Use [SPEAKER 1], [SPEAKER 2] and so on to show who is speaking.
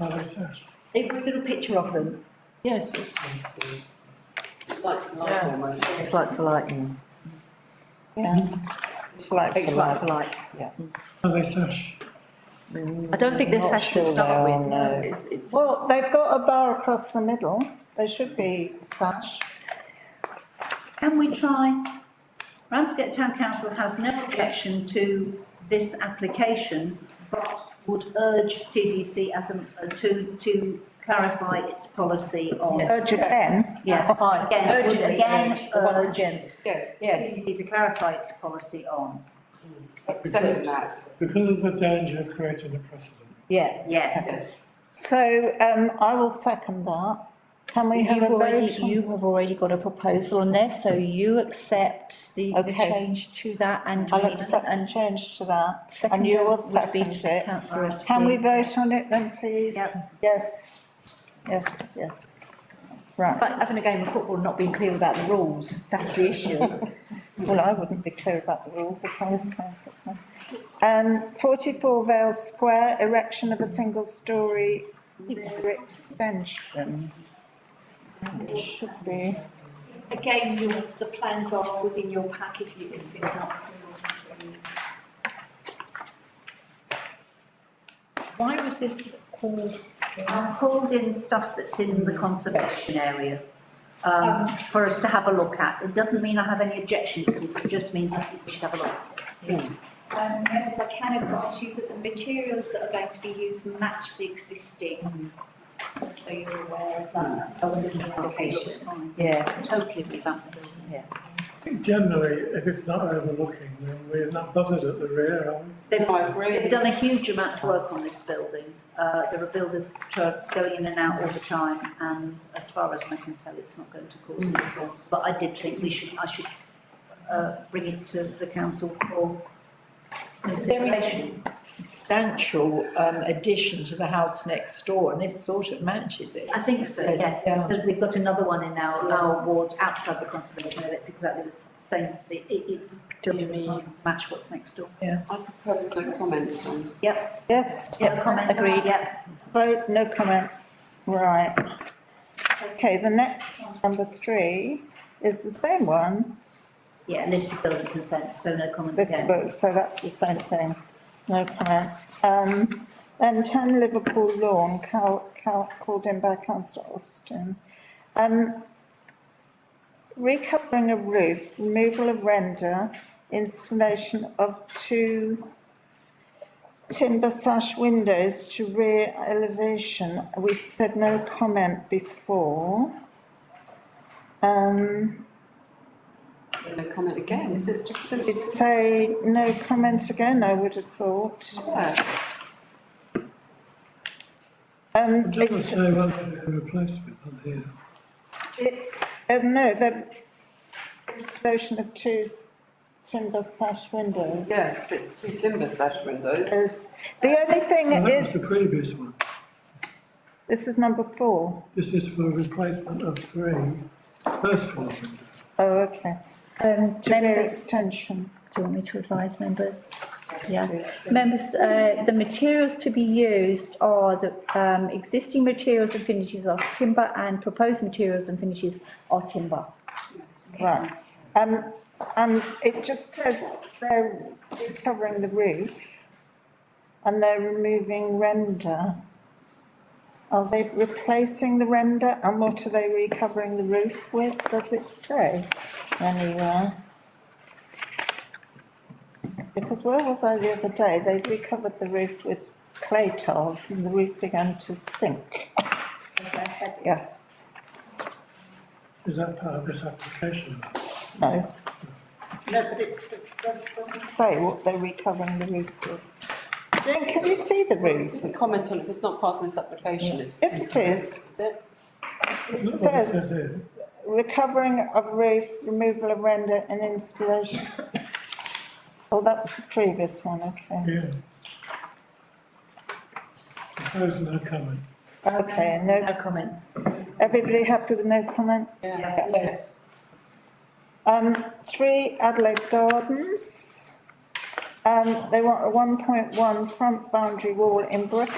[SPEAKER 1] Oh, that's it.
[SPEAKER 2] It was there a picture of them?
[SPEAKER 3] Yes,
[SPEAKER 2] Like,
[SPEAKER 3] Yeah.
[SPEAKER 2] almost.
[SPEAKER 3] it's like for like, yeah. Yeah, it's like
[SPEAKER 2] It's
[SPEAKER 3] for
[SPEAKER 2] like,
[SPEAKER 3] like.
[SPEAKER 2] like,
[SPEAKER 1] Are they sash?
[SPEAKER 2] I don't think they're
[SPEAKER 3] Not
[SPEAKER 2] sash to
[SPEAKER 3] sure
[SPEAKER 2] start
[SPEAKER 3] they are,
[SPEAKER 2] with, no.
[SPEAKER 3] no.
[SPEAKER 2] It- it's-
[SPEAKER 3] Well, they've got a bar across the middle, they should be sash.
[SPEAKER 4] Can we try? Ramsgate Town Council has no objection to this application, but would urge TDC as a, to, to clarify its policy
[SPEAKER 2] Uh,
[SPEAKER 4] on.
[SPEAKER 3] Urge again,
[SPEAKER 4] Yes,
[SPEAKER 2] fine.
[SPEAKER 4] again, would
[SPEAKER 2] Urgently
[SPEAKER 4] again
[SPEAKER 2] urge, the one
[SPEAKER 4] urge
[SPEAKER 2] urgent.
[SPEAKER 5] Yes,
[SPEAKER 4] TDC to clarify its policy on,
[SPEAKER 5] except that,
[SPEAKER 1] Because of the danger of creating a precedent.
[SPEAKER 2] Yeah,
[SPEAKER 4] yes.
[SPEAKER 5] yes.
[SPEAKER 3] so, um, I will second that. Can we have a
[SPEAKER 2] you've already,
[SPEAKER 3] vote? on-
[SPEAKER 2] you have already got a proposal on there, so you accept the, the
[SPEAKER 3] Okay.
[SPEAKER 2] change to that and
[SPEAKER 3] I'll
[SPEAKER 2] we-
[SPEAKER 3] accept and change to that, and
[SPEAKER 2] Second
[SPEAKER 3] you will
[SPEAKER 2] would be
[SPEAKER 3] second it.
[SPEAKER 2] councillor Esty.
[SPEAKER 3] Can we vote on it then, please?
[SPEAKER 4] Yep.
[SPEAKER 3] Yes, yes, yes.
[SPEAKER 2] It's
[SPEAKER 3] Right,
[SPEAKER 2] like having a game of football and not being clear about the rules, that's the issue.
[SPEAKER 3] well, I wouldn't be clear about the rules if I was councillor. Um, forty-four Vale Square, erection of a single-storey rear extension. It should be,
[SPEAKER 6] Again, your, the plans are within your pack if you, if it's not.
[SPEAKER 4] Why was this called? I Uh, called in stuff that's in the conservation area, um, for us to have a look at. It doesn't mean I have any objection to it, it just means I think we should have a look.
[SPEAKER 6] Um, members, I can advise you that the materials that are going to be used match the existing. So you're aware of that, that's always an
[SPEAKER 4] It's
[SPEAKER 6] indication.
[SPEAKER 4] fine.
[SPEAKER 2] Yeah,
[SPEAKER 4] Totally revamp the building.
[SPEAKER 1] I think generally, if it's not overlooking, then we're not bothered at the rear, are we?
[SPEAKER 4] They've,
[SPEAKER 5] I agree.
[SPEAKER 4] they've done a huge amount of work on this building. Uh, there are builders who are going in and out all the time, and as far as I can tell, it's not going to cause any problems. But I did think we should, I should, uh, bring it to the council for consideration.
[SPEAKER 7] substantial um addition to the house next door and this sort of matches it.
[SPEAKER 4] I think so, yes,
[SPEAKER 7] Yeah.
[SPEAKER 4] because we've got another one in our, our ward outside the conservation area, it's exactly the same, it, it's, it's match what's next door.
[SPEAKER 5] I propose no comments on
[SPEAKER 3] yes,
[SPEAKER 4] No comment?
[SPEAKER 2] agreed.
[SPEAKER 4] Yeah.
[SPEAKER 3] vote, no comment, right. Okay, the next one, number three, is the same one.
[SPEAKER 4] Yeah, listed building consent, so no comment
[SPEAKER 3] This
[SPEAKER 4] again.
[SPEAKER 3] book, so that's the same thing, no comment. Um, then ten Liverpool Lawn, cal, cal, called in by councillor Austin. Um, recovering a roof, removal of render, installation of two timber sash windows to rear elevation. We said no comment before. Um,
[SPEAKER 5] it, no comment again, is it just simple?
[SPEAKER 3] It'd say no comment again, I would have thought.
[SPEAKER 5] Yeah,
[SPEAKER 3] Um,
[SPEAKER 1] It doesn't
[SPEAKER 3] it's,
[SPEAKER 1] say whether they're a replacement on here.
[SPEAKER 3] it's, uh, no, the installation of two timber sash windows.
[SPEAKER 5] yeah, three three timber sash windows.
[SPEAKER 3] Is, the only
[SPEAKER 1] Well,
[SPEAKER 3] thing
[SPEAKER 1] That was the
[SPEAKER 3] is,
[SPEAKER 1] previous one.
[SPEAKER 3] this is number four.
[SPEAKER 1] This is for replacement of three first floor windows.
[SPEAKER 3] Oh, okay.
[SPEAKER 8] Um,
[SPEAKER 3] To rear extension.
[SPEAKER 8] do you want me to advise members? Yeah. Members, uh, the materials to be used are the, um, existing materials and finishes are timber and proposed materials and finishes are timber.
[SPEAKER 3] Right, um, and it just says they're recovering the roof and they're removing render. Are they replacing the render and what are they recovering the roof with? Does it say anywhere? Because where was I the other day? They recovered the roof with clay tiles and the roof began to sink. As they had- Yeah,
[SPEAKER 1] Is that part of this application?
[SPEAKER 3] no,
[SPEAKER 4] No, but it, it does, doesn't
[SPEAKER 3] say what they're recovering the roof with. Jane, can you see the roofs?
[SPEAKER 5] It's a comment on, it, it's not part of this application, is,
[SPEAKER 3] Yes, it is.
[SPEAKER 5] is it?
[SPEAKER 3] It
[SPEAKER 1] Look what it says
[SPEAKER 3] says
[SPEAKER 1] here.
[SPEAKER 3] recovering of roof, removal of render and installation. Oh, that was the previous one, okay.
[SPEAKER 1] Yeah. Suppose no comment.
[SPEAKER 3] Okay, no,
[SPEAKER 7] No comment.
[SPEAKER 3] everybody happy with no comment?
[SPEAKER 5] Yeah,
[SPEAKER 7] Yes.
[SPEAKER 3] Um, three Adelaide Gardens. Um, they want a one point one front boundary wall in brick.